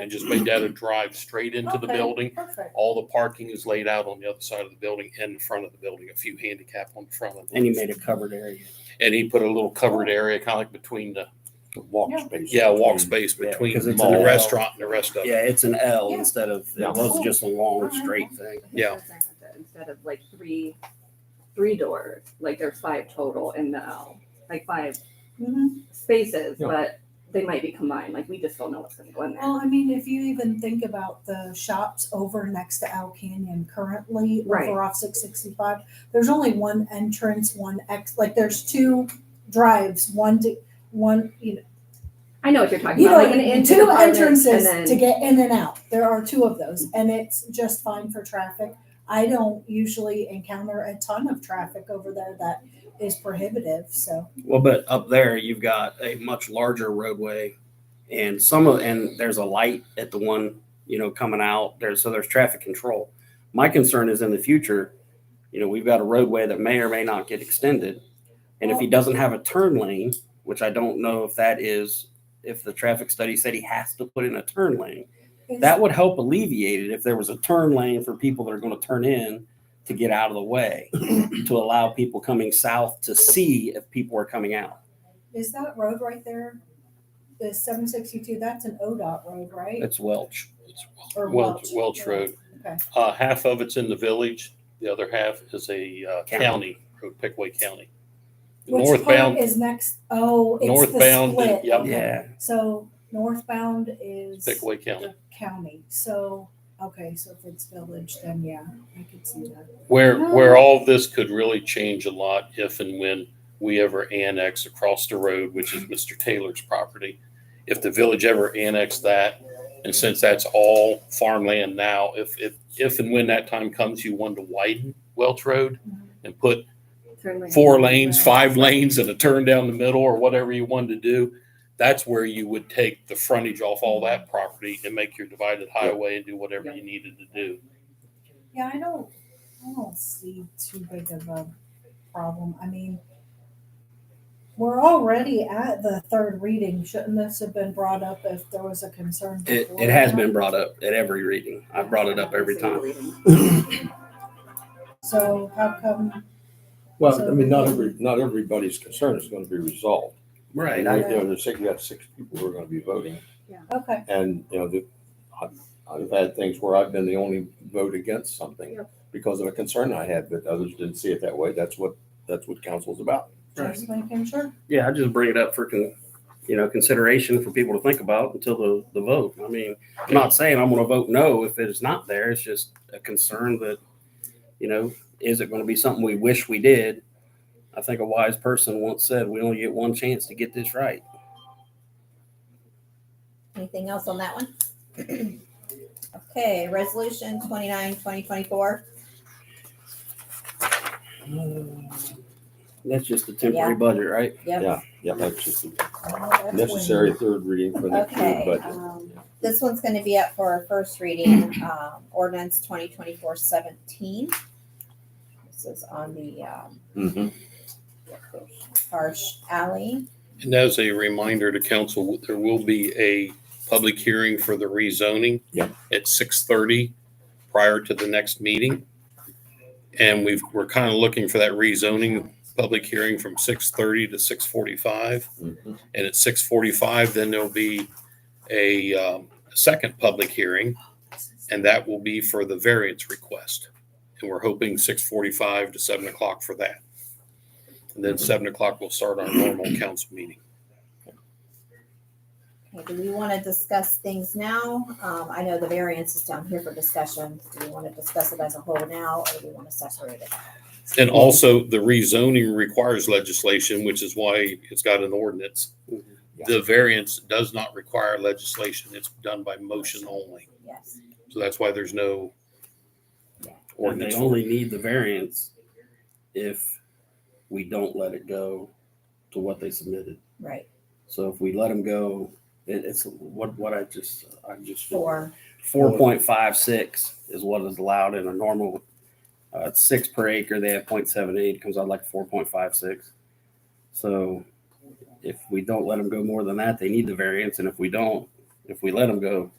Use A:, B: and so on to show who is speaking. A: and just made that a drive straight into the
B: Okay.
A: building.
B: Perfect.
A: All the parking is laid out on the other side of the building and in front of the building, a few handicap on the front of it.
C: And you made a covered area.
A: And he put a little covered area, kind of like between the,
D: The Walk
B: Yeah.
D: space.
A: yeah, walk
D: between-
A: space
D: yeah,
A: between
C: because
A: the
C: it's an
A: mall,
C: L.
A: restaurant and the rest of it.
C: Yeah, it's an L
B: Yeah.
C: instead of,
D: Yeah.
C: it wasn't just a long
B: Alright.
C: straight thing.
E: I think
A: Yeah.
E: that's what I'm saying with it, Instead of like three, three doors, like there's five total in the L, like five
B: Mhm.
E: spaces,
D: Yeah.
E: but they might be combined, like we just don't know what's gonna go in there.
B: Well, I mean, if you even think about the shops over next to Al Canyon currently,
E: Right.
B: over off six sixty-five, there's only one entrance, one ex, like there's two drives, one to, one, you know,
E: I know what you're talking
B: you
E: about,
B: know,
E: like an in-
B: two
E: apartment
B: entrances
E: and
B: to
E: then,
B: get in and out. There are two of those, and it's just fine for traffic. I don't usually encounter a ton of traffic over there that is prohibitive, so.
C: Well, but up there, you've got a much larger roadway and some of, and there's a light at the one, you know, coming out there. So there's traffic control. My concern is in the future, you know, we've got a roadway that may or may not get extended. And if he doesn't have a turn lane, which I don't know if that is, if the traffic study said he has to put in a turn lane.
B: is-
C: That would help alleviate it if there was a turn lane for people that are going to turn in to get out of the way, to allow people coming south to see if people are coming out.
B: Is that road right there, the seven sixty-two, that's an ODOT road, right?
C: It's Welch.
B: Or
A: Welch, Welch
B: yeah.
A: Road.
B: Okay.
A: Uh, half of it's in the village, the other half is a uh,
C: County.
A: county, road, Pickway County.
B: Which part
A: Northbound,
B: is next, oh, it's the
A: Northbound,
B: split.
A: yep.
B: okay.
C: Yeah.
B: So northbound is
A: Pickway County.
B: the county, so, okay, so if it's village, then yeah, I could see that.
A: Where, where all this could really change a lot if and when we ever annex across the road, which is Mr. Taylor's property. If the village ever annexed that, and since that's all farmland now, if, if, if and when that time comes, you want to widen Welch Road and put
E: turn lanes.
A: four lanes, five lanes and a turn down the middle or whatever you wanted to do, that's where you would take the frontage off all that property and make your divided highway and do whatever you needed to do.
B: Yeah, I don't, I don't see too big of a problem. I mean, we're already at the third reading. Shouldn't this have been brought up if there was a concern?
C: It,
B: before?
C: it has been brought up at every reading. I brought it up every time.
B: So how come,
D: Well, I mean, not every, not everybody's concern is gonna be resolved.
C: Right.
D: Right
C: I-
D: there, there's six, you got six people who are gonna be voting,
B: okay,
D: and, you know, the, I've, I've had things where I've been the only vote against something
E: Yeah.
D: because of a concern I had, but others didn't see it that way. That's what, that's what council's about.
B: just making sure.
C: Yeah, I just bring it up for, con- you know, consideration for people to think about until the, the vote. I mean, I'm not saying I'm going to vote no if it's not there. It's just a concern that, you know, is it going to be something we wish we did? I think a wise person once said, we only get one chance to get this right.
F: Anything else on that one? Okay, resolution 29, 2024.
C: That's just a temporary budget, right?
F: Yep.
D: Yeah, yeah, that's just a
B: Oh, that's when-
D: necessary third reading for next year,
F: Okay,
D: but
F: um, this one's gonna be up for a first reading, um, ordinance 2024 17. This is on the, um,
D: Mhm.
F: Harsh Alley.
A: And as a reminder to council, there will be a public hearing for the rezoning.
D: Yeah.
A: At six thirty prior to the next meeting. And we've, we're kind of looking for that rezoning public hearing from six thirty to six forty-five.
D: Mhm.
A: And at six forty-five, then there'll be a um, second public hearing, and that will be for the variance request. And we're hoping six forty-five to seven o'clock for that. And then seven o'clock, we'll start our normal council meeting.
F: Okay, do we wanna discuss things now? Um, I know the variance is down here for discussion. Do we wanna discuss it as a whole now, or do we wanna separate it?
A: And also, the rezoning requires legislation, which is why it's got an ordinance.
C: Mhm.
A: The variance does not require legislation. It's done by motion only.
F: Yes.
A: So that's why there's no
C: Or they
A: ordinance.
C: only need the variance if we don't let it go to what they submitted.
F: Right,
C: So if we let them go, it, it's what, what I just, I just.
F: four.
C: Four point five six is what is allowed in a normal, uh, six per acre, they have point seven eight, comes out like four point five six. So if we don't let them go more than that, they need the variance, and if we don't, if we let them go,